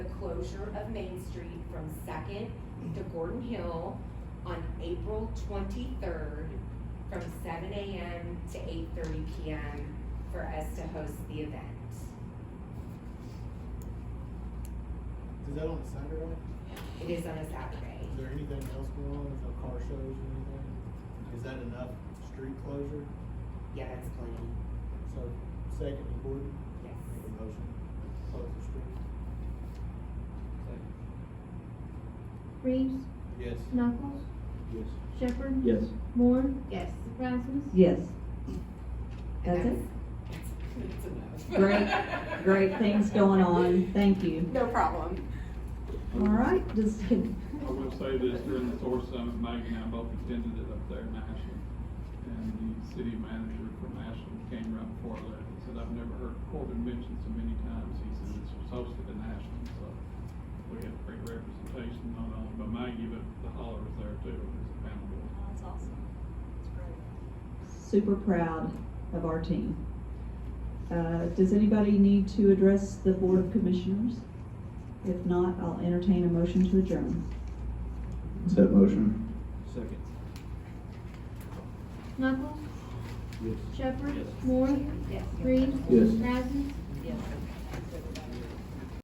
closure of Main Street from Second to Gordon Hill on April twenty-third from seven AM to eight thirty PM for us to host the event. Is that on a Saturday? It is on a Saturday. Is there anything else going on? Is there car shows or anything? Is that enough street closure? Yeah, that's plenty, So second and Gordon, yes. make a motion, close the street. Reeves, Yes. Knuckles, Yes. Shepherd, Yes. Moore, Yes. Rasmus. Yes. And That's it. That's enough. Great, great things going on. Thank you. No problem. All right, just can, I will say this, during the Source Summit, Mike and I both attended it up there in Ashland. And the city manager from Ashland came right before I left and said, I've never heard Corbin mentioned so many times. He said this was hosted in Ashland, so we had great representation, not only by Maggie, but the hollers there too, as a panel. That's awesome. That's great. super proud of our team. Uh, does anybody need to address the Board of Commissioners? If not, I'll entertain a motion to adjourn. Set motion? Second. Knuckles, Yes. Shepherd, Moore, Yes. Reeves, Yes. Rasmus.